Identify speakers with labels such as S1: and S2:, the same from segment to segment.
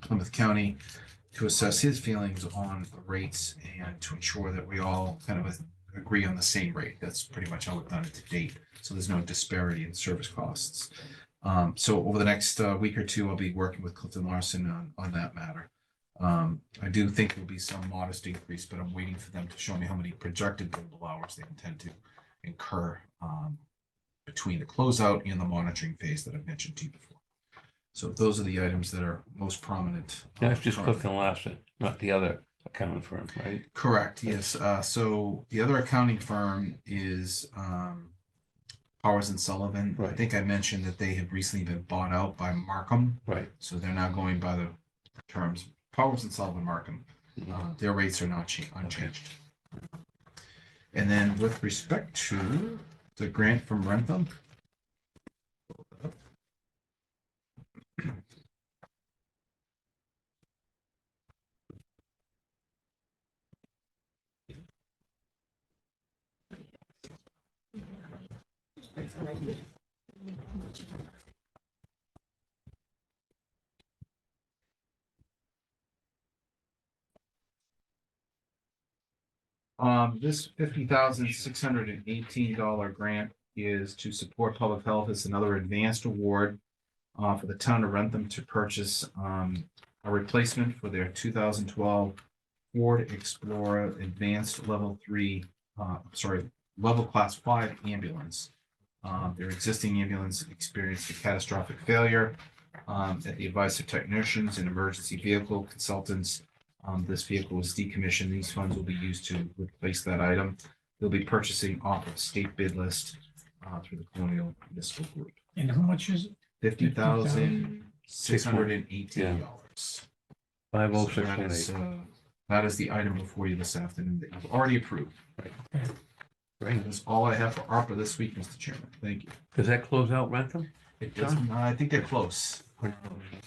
S1: Plymouth County to assess his feelings on the rates and to ensure that we all kind of agree on the same rate. That's pretty much how we've done it to date. So there's no disparity in service costs. Um, so over the next uh, week or two, I'll be working with Clifton Larson on, on that matter. Um, I do think there'll be some modest increase, but I'm waiting for them to show me how many projected billable hours they intend to incur um, between the closeout and the monitoring phase that I've mentioned to you before. So those are the items that are most prominent. uh,
S2: That's just
S1: currently.
S2: Clifton Larson, not the other accounting firm, right?
S1: Correct, yes. Uh, so the other accounting firm is, um, Powers and Sullivan. I
S2: Right.
S1: think I mentioned that they have recently been bought out by Markham,
S2: Right.
S1: so they're now going by the terms Powers and Sullivan Markham. Uh, their rates are not cha- unchanged. And then with respect to the grant from Rentham. Um, this fifty thousand six hundred and eighteen dollar grant is to support public health. It's another advanced award. Uh, for the town of Rentham to purchase, um, a replacement for their two thousand twelve Ford Explorer Advanced Level Three, uh, sorry, Level Class Five ambulance. Um, their existing ambulance experienced a catastrophic failure. Um, at the advice of technicians and emergency vehicle consultants, um, this vehicle is decommissioned. These funds will be used to replace that item. They'll be purchasing off of state bid list uh, through the Colonial Municipal Group.
S3: And how much is it?
S1: Fifty thousand, six hundred and eighteen dollars.
S2: Five oh six
S1: That
S2: one
S1: is,
S2: eight.
S1: uh, that is the item before you this afternoon that you've already approved.
S2: Right.
S1: That's all I have for ARPA this week, Mr. Chairman. Thank you.
S2: Does that close out rental?
S1: It doesn't, I think they're close.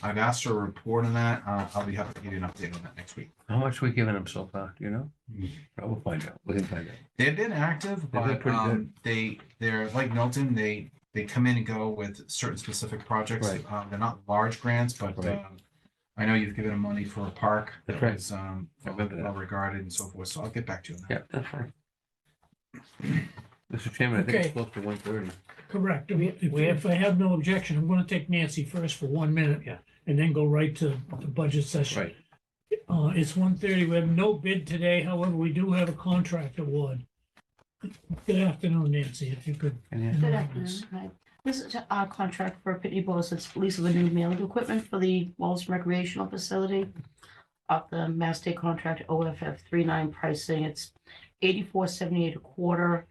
S1: I've asked for a report on that. Uh, I'll be happy to give you an update on that next week.
S2: How much we giving them so far, do you know?
S1: Hmm.
S2: Well, We'll find out. We can find out.
S1: They've been active,
S2: been
S1: but
S2: pretty good.
S1: um, they, they're like Milton, they, they come in and go with certain specific projects.
S2: Right.
S1: Um, they're not large grants, but
S2: Right.
S1: um, I know you've given them money for a park.
S2: That's
S1: that
S2: right.
S1: was, Um,
S2: I remember that.
S1: well regarded and so forth, so I'll get back to you on that.
S2: Yeah, that's fine. Mr. Chairman, I think it's
S3: Okay.
S2: close to one thirty.
S3: Correct. If if I have no objection, I'm gonna take Nancy first for one minute.
S2: Yeah.
S3: And then go right to the budget session.
S2: Right.
S3: Uh, it's one thirty. We have no bid today. However, we do have a contract award. Good afternoon, Nancy, if you could.
S2: And
S4: Good afternoon. Hi. This is our contract for Pitney Bowes. It's lease of a new mailing equipment for the Walls recreational facility. Of the Mass State Contract OFF 39 pricing, it's 84.78 a quarter,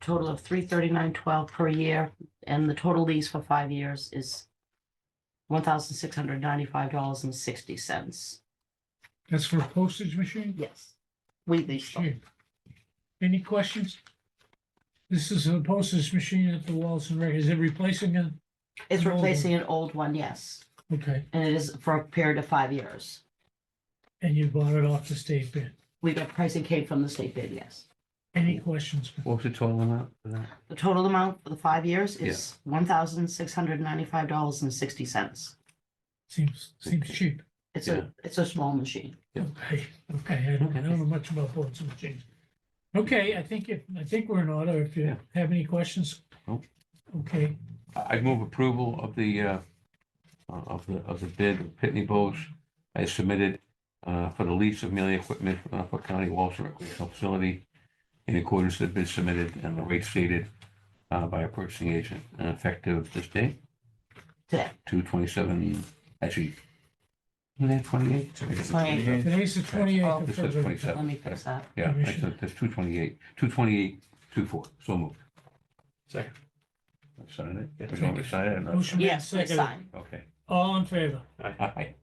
S4: total of 339.12 per year, and the total lease for five years is $1,695.60.
S3: That's for a postage machine?
S4: Yes. We lease them.
S3: Any questions? This is a postage machine at the Wallace and Rec. Is it replacing it?
S4: It's
S3: An old one.
S4: replacing an old one, yes,
S3: Okay,
S4: and it is for a period of five years.
S3: and you bought it off the state bid.
S4: We got pricing came from the state bid, yes.
S3: Any questions?
S2: What was the total amount for that?
S4: The total amount for the five years is one thousand six hundred ninety-five dollars and sixty cents.
S3: Seems, seems cheap.
S4: It's
S2: Yeah.
S4: a, it's a small machine.
S2: Yeah.
S3: Okay, okay, I don't, I don't know much about boards and machines. Okay, I think if, I think we're in order, if you
S2: Yeah.
S3: have any questions.
S2: Nope.
S3: Okay,
S2: I I move approval of the, uh, uh, of the, of the bid of Pitney Bowes I submitted uh, for the lease of melee equipment uh, for Norfolk County Walls and Recreational Facility in accordance with the bid submitted and the rate stated uh, by a purchasing agent and effective this day,
S4: Today,
S2: two twenty-seven, actually, twenty-eight?
S1: So I guess it's
S4: Right.
S1: okay.
S3: today's the twenty-eighth
S4: Oh.
S3: of
S2: This is
S3: February.
S4: let me
S2: twenty-seven.
S4: fix that.
S2: Yeah, I said that's two twenty-eight, two twenty-eight, two four, so moved.
S3: Second.
S2: Sign it? You want me to sign it or not?
S3: Motion made,
S4: Yes, please
S3: seconded.
S4: sign.
S2: Okay.
S3: All in favor?
S2: Aye.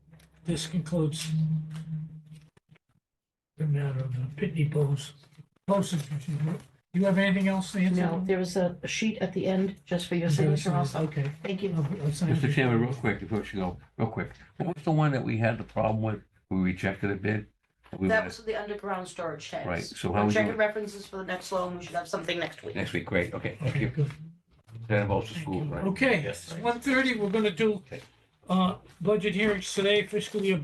S3: This concludes the matter of the Pitney Bowes. Postage machine. Do you have anything else, Nancy?
S4: No, there is a a sheet at the end just for your
S3: Okay,
S4: signature also.
S3: Okay.
S4: Thank you.
S3: I'll- I'll sign
S2: Mr.
S3: it.
S2: Chairman, real quick, before you go, real quick, what was the one that we had the problem with? We rejected a bid? We
S4: That
S2: wanted-
S4: was the underground storage tanks.
S2: Right, so how
S4: I'm
S2: we
S4: checking
S2: do-
S4: references for the next loan. We should have something next week.
S2: Next week, great, okay, thank
S3: Okay,
S2: you.
S3: good.
S2: That involves the
S3: Thank
S2: school,
S3: you.
S2: right?
S3: Okay,
S2: Yes.
S3: one thirty, we're gonna do
S2: Okay.
S3: Uh, budget hearings today, fiscal year budget